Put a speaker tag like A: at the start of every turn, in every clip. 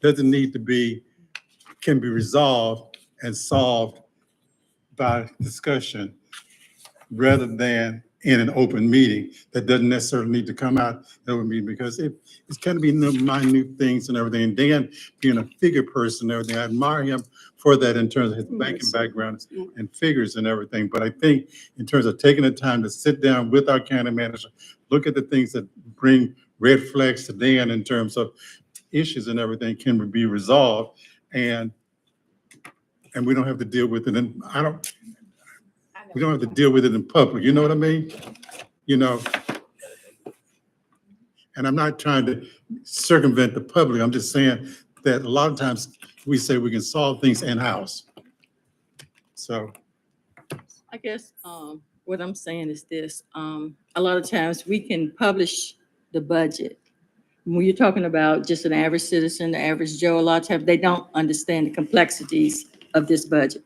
A: doesn't need to be, can be resolved and solved by discussion rather than in an open meeting that doesn't necessarily need to come out in open meeting because it, it's gonna be the minute things and everything. And Dan, being a figure person and everything, I admire him for that in terms of his banking background and figures and everything. But I think in terms of taking the time to sit down with our county manager, look at the things that bring red flags to Dan in terms of issues and everything can be resolved and and we don't have to deal with it. And I don't, we don't have to deal with it in public, you know what I mean? You know? And I'm not trying to circumvent the public, I'm just saying that a lot of times we say we can solve things in-house. So,
B: I guess, um, what I'm saying is this, um, a lot of times we can publish the budget. When you're talking about just an average citizen, the average Joe, a lot of times they don't understand the complexities of this budget.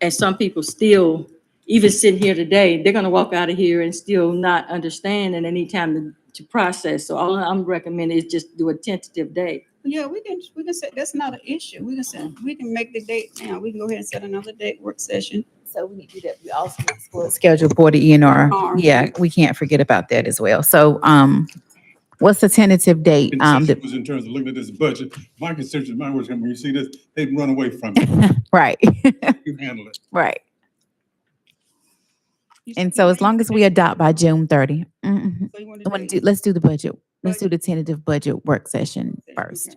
B: And some people still, even sitting here today, they're gonna walk out of here and still not understand and they need time to, to process. So all I'm recommending is just do a tentative date.
C: Yeah, we can, we can say, that's not an issue. We can say, we can make the date now. We can go ahead and set another date, work session.
D: So we need to do that. We also need to school- schedule for the E and R.
C: R.
D: Yeah, we can't forget about that as well. So, um, what's the tentative date? Um,
A: consensus
D: the-
A: was in terms of looking at this budget, my constituents, my words, when you see this, they run away from it,
D: right,
A: you handle it.
D: right. And so as long as we adopt by June thirty, mm,
C: So you want
D: I
C: to
D: want to do, let's do the budget. Let's do the tentative budget work session first.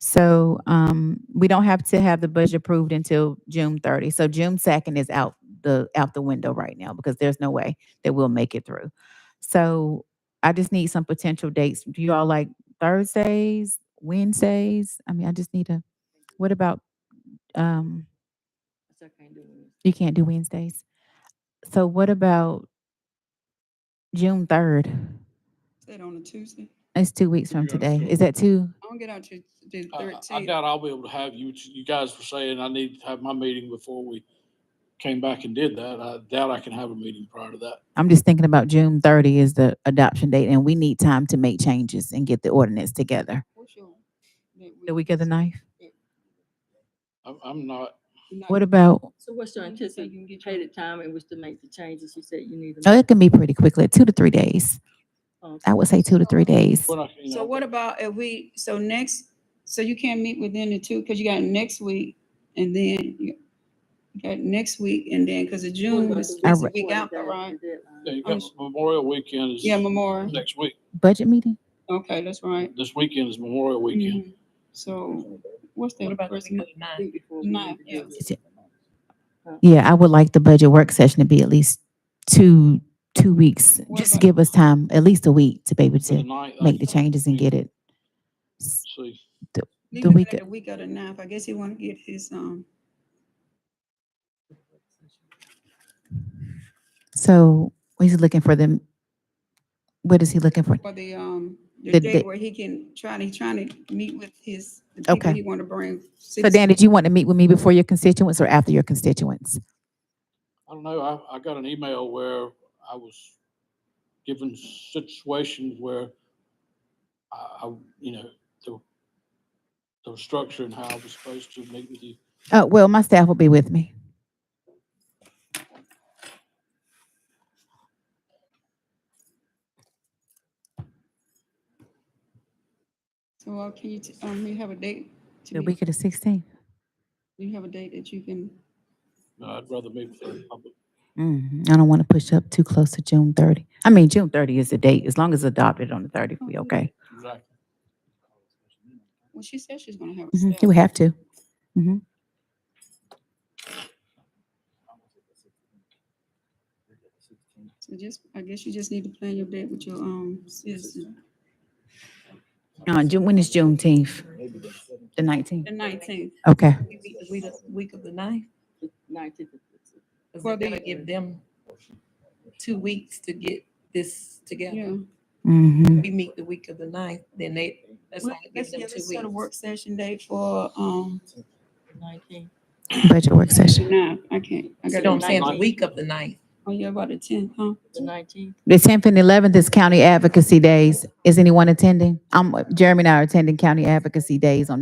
D: So, um, we don't have to have the budget approved until June thirty. So June second is out the, out the window right now because there's no way that we'll make it through. So I just need some potential dates. Do you all like Thursdays, Wednesdays? I mean, I just need a, what about, um, you can't do Wednesdays. So what about June third?
C: Set on a Tuesday.
D: It's two weeks from
A: Yeah,
D: today.
A: sure.
D: Is that too?
C: I don't get out to the
E: Uh, I- I I
C: thirteenth.
E: doubt I'll be able to have you, you guys were saying I need to have my meeting before we came back and did that. I doubt I can have a meeting prior to that.
D: I'm just thinking about June thirty is the adoption date and we need time to make changes and get the ordinance together. The week of the ninth?
E: I'm, I'm not,
D: What about,
B: So what's your anticipated time in which to make the changes you said you need? to
D: oh,
B: make?
D: it can be pretty quickly, two to three days.
B: Um,
D: I would say two to three days.
E: what I, you
C: So
E: know,
C: what about if we, so next, so you can't meet within the two, because you got next week and then you you got next week and then, because of June was,
D: I
C: was a
D: re-
C: week out, right?
E: yeah, you
C: I'm
E: got
C: s-
E: Memorial Weekend
C: Yeah,
E: is
C: Memorial.
E: next week.
D: Budget meeting?
C: Okay, that's right.
E: This weekend is Memorial Weekend.
C: Mhm. So what's that?
F: What about the
C: first
F: week
C: month?
F: of the ninth?
C: Ninth, yeah.
D: Yeah, I would like the budget work session to be at least two, two weeks,
C: What
D: just to
C: about-
D: give us time, at least a week to be able
E: For
D: to
E: the ninth, I
D: make the
E: think
D: changes and get it. s-
E: we'll see.
C: Leave
D: The
C: it
D: week
C: at
D: of-
C: The week of the ninth, I guess he wanna get his, um,
D: So he's looking for them. What is he looking for?
C: for the, um,
D: The
C: the
D: da-
C: day where he can try, he trying to meet with his, the people
D: Okay.
C: he wanna bring.
D: So Dan, did you want to meet with me before your constituents or after your constituents?
E: I don't know, I, I got an email where I was given situations where I, I, you know, the, the structure and how I was supposed to meet with you.
D: Uh, well, my staff will be with me.
C: So, uh, can you, t- um, you have a date? to
D: The
C: meet?
D: week of the sixteenth.
C: Do you have a date that you can?
E: No, I'd rather meet with the public.
D: Mm-hmm. I don't want to push up too close to June thirty. I mean, June thirty is the date. As long as adopted on the thirtieth, we
C: Oh,
D: okay.
E: Exactly.
C: Well, she said she's gonna have. a
D: Mhm,
C: staff.
D: You have to.
C: So just, I guess you just need to plan your date with your, um, citizen.
D: Uh, June, when is Juneteenth? The nineteenth.
C: The nineteenth,
D: Okay.
F: We meet the week of- Week of the ninth, because
C: Well,
F: they're
C: the-
F: gonna give them two weeks to get this together.
C: yeah.
D: Mm-hmm.
F: We meet the week of the ninth, then they, that's
C: Well,
F: only
C: Let's
F: give them
C: yeah,
F: two
C: let's set a work
F: weeks.
C: session date for, um,
D: Budget work session.
C: no, I can't. I
F: So
C: got
F: I'm
C: to
F: saying the week of the ninth.
C: Oh, yeah, about the tenth, huh?
D: The tenth and eleventh is county advocacy days. Is anyone attending? Um, Jeremy and I are attending county advocacy days on